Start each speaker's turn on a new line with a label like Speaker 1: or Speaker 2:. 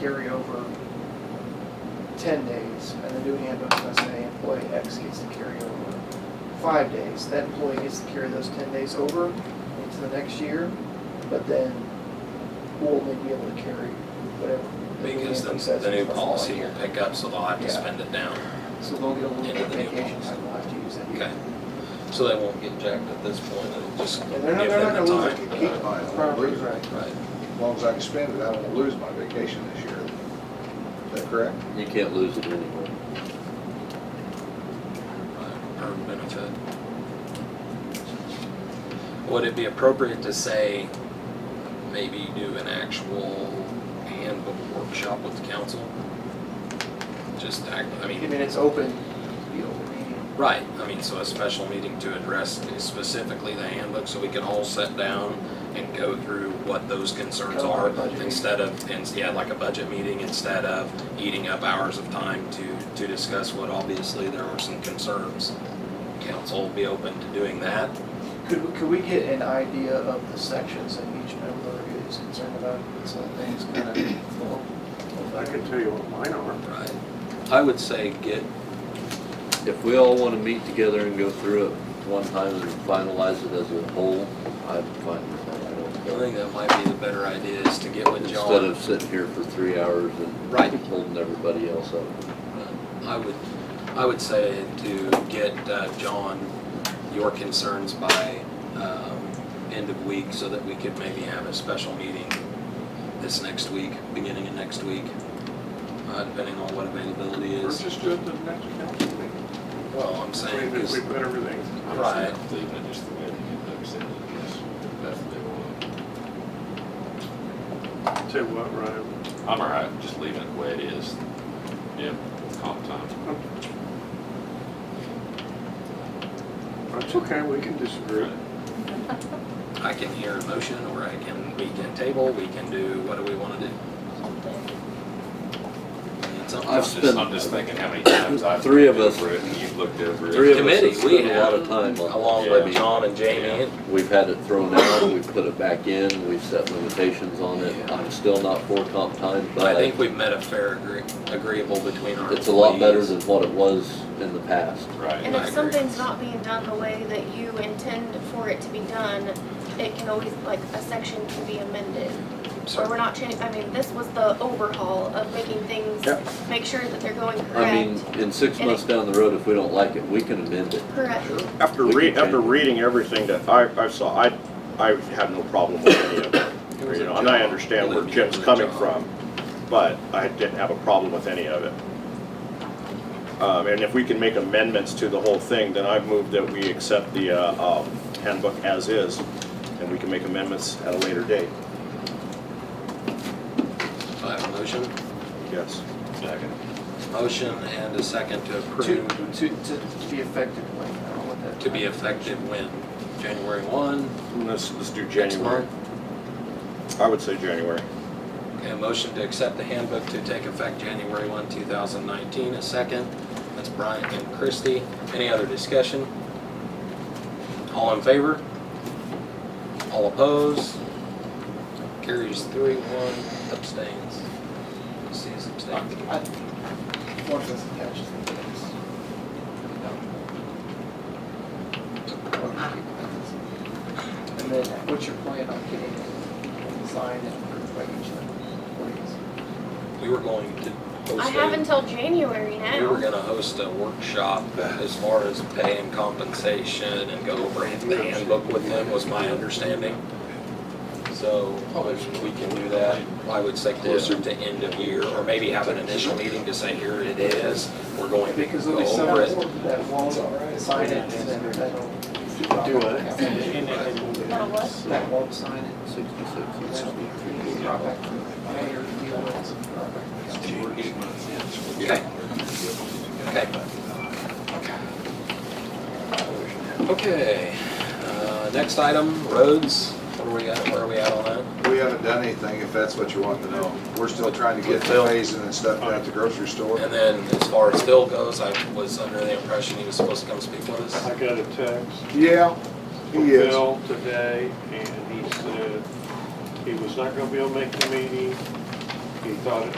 Speaker 1: carry over ten days, and the new handbook does say employee X gets to carry over five days. That employee gets to carry those ten days over into the next year, but then we'll only be able to carry whatever. the new
Speaker 2: Because
Speaker 1: handbook
Speaker 2: the,
Speaker 1: says
Speaker 2: the new
Speaker 1: it's allowed.
Speaker 2: policy will pick up, so they'll have to
Speaker 1: Yeah.
Speaker 2: spend it down.
Speaker 1: So they'll get a little
Speaker 2: Into
Speaker 1: bit of
Speaker 2: the new
Speaker 1: vacation
Speaker 2: policy.
Speaker 1: time, they'll have to use that.
Speaker 2: Okay. So they won't get jacked at this point, it'll just give
Speaker 1: And they're not, they're not gonna
Speaker 2: them the
Speaker 1: lose
Speaker 2: time.
Speaker 1: it,
Speaker 3: Keep my, I'll lose it.
Speaker 1: right.
Speaker 2: Right.
Speaker 3: As long as I can spend it, I won't lose my vacation this year. Is that correct?
Speaker 4: You can't lose it anymore.
Speaker 2: or benefit. Would it be appropriate to say, maybe do an actual handbook workshop with the council? Just act, I
Speaker 1: I
Speaker 2: mean,
Speaker 1: mean, it's open, you know, meeting.
Speaker 2: right, I mean, so a special meeting to address specifically the handbook, so we can all sit down and go through what those concerns
Speaker 1: Kind of like
Speaker 2: are,
Speaker 1: a budget meeting.
Speaker 2: instead of, and, yeah, like a budget meeting, instead of eating up hours of time to, to discuss what obviously there are some concerns. Council will be open to doing that,
Speaker 1: Could, could we get an idea of the sections that each member is concerned about, so that things kind of.
Speaker 5: I can tell you what mine are.
Speaker 2: Right. I would say get,
Speaker 4: If we all want to meet together and go through it one time and finalize it as a whole, I'm fine with that. I
Speaker 2: I
Speaker 4: don't care.
Speaker 2: think that might be the better idea is to get with
Speaker 4: Instead
Speaker 2: John.
Speaker 4: of sitting here for three hours and
Speaker 2: Right.
Speaker 4: holding everybody else up.
Speaker 2: Um, I would, I would say to get uh, John your concerns by um, end of week so that we could maybe have a special meeting this next week, beginning of next week, uh, depending on what availability
Speaker 5: Or
Speaker 2: is.
Speaker 5: just do it the next council meeting.
Speaker 2: Well, I'm
Speaker 5: I
Speaker 2: saying
Speaker 5: mean, if
Speaker 2: is,
Speaker 5: we put everything,
Speaker 2: Right.
Speaker 6: Cleveland, just the way they get those in, yes, that's what they want.
Speaker 5: say what, Ryan?
Speaker 6: I'm all right, just leaving it the way it is. Yep, comp time.
Speaker 5: It's okay, we can disagree.
Speaker 2: I can hear a motion or I can, we can table, we can do, what do we want to do? Need something?
Speaker 4: I've
Speaker 6: I'm just-
Speaker 4: spent-
Speaker 6: I'm just thinking how many times I've.
Speaker 4: Three of
Speaker 6: looked
Speaker 4: us-
Speaker 6: over it and You've looked over it.
Speaker 4: Three of us have
Speaker 2: Committee, we
Speaker 4: spent a lot of
Speaker 2: have,
Speaker 4: time on.
Speaker 2: Along
Speaker 4: this. I
Speaker 2: with
Speaker 4: mean,
Speaker 2: John and Jamie and
Speaker 4: We've had it thrown out, we've put it back in, we've set limitations on it. I'm still not for comp time,
Speaker 2: I
Speaker 4: but
Speaker 2: think we've met a fair agree- agreeable between our.
Speaker 4: it's a lot better
Speaker 2: employees.
Speaker 4: than what it was in the past.
Speaker 6: Right.
Speaker 7: And
Speaker 2: I
Speaker 7: if
Speaker 2: agree.
Speaker 7: something's not being done the way that you intend for it to be done, it can always, like, a section can be amended. Or we're
Speaker 2: So
Speaker 7: not changing, I mean, this was the overhaul of making things,
Speaker 5: Yep.
Speaker 7: make sure that they're going
Speaker 4: I mean,
Speaker 7: correct.
Speaker 4: in six
Speaker 7: And it-
Speaker 4: months down the road, if we don't like it, we can amend it.
Speaker 7: Correct.
Speaker 8: After
Speaker 4: We can
Speaker 8: re, after
Speaker 4: change it.
Speaker 8: reading everything that I, I saw, I, I had no problem with any of it. You know, and I understand where Jim's coming from, but I didn't have a problem with any of it. Um, and if we can make amendments to the whole thing, then I move that we accept the, uh, um, handbook as is, and we can make amendments at a later date,
Speaker 2: I have a motion,
Speaker 8: yes.
Speaker 6: Second.
Speaker 2: motion and a second to
Speaker 1: To,
Speaker 2: approve
Speaker 1: to, to be effective, like, I don't know what that.
Speaker 2: to be effective when January one,
Speaker 8: And Let's, let's do
Speaker 2: next
Speaker 8: January.
Speaker 2: month.
Speaker 8: I would say January.
Speaker 2: Okay, a motion to accept the handbook to take effect January one, two thousand nineteen, a second. That's Brian and Christie. Any other discussion? All in favor? All opposed? Carries three, one abstains. See, is abstaining.
Speaker 1: I- Once it's attached to the base. And then what's your plan on getting it designed and approved by each of the employees?
Speaker 2: We were going to host.
Speaker 7: I
Speaker 2: a-
Speaker 7: have until January
Speaker 2: We were
Speaker 7: now.
Speaker 2: gonna host a workshop as far as pay and compensation and go over the handbook with them was my understanding. So if we can do that, I would say closer to end of year, or maybe have an initial meeting to say, here it is, we're going to
Speaker 1: Because
Speaker 2: go
Speaker 1: there'll be some
Speaker 2: over it.
Speaker 1: that won't sign it, and then that'll. Do
Speaker 7: That'll what?
Speaker 1: That won't sign it.
Speaker 4: Sixty-six.
Speaker 1: That'll be brought back to the mayor, deal with it, brought back to the council.
Speaker 2: Okay. Okay. Okay, uh, next item, roads, what are we at, where are we at on that?
Speaker 3: We haven't done anything, if that's what you want to know. We're still trying to get the phasing and stuff down at the grocery store.
Speaker 2: And then as far as Phil goes, I was under the impression he was supposed to come speak with us.
Speaker 5: I got a text
Speaker 3: Yeah,
Speaker 5: from
Speaker 3: he is.
Speaker 5: Bill today, and he said he was not gonna be able to make the meeting. He thought it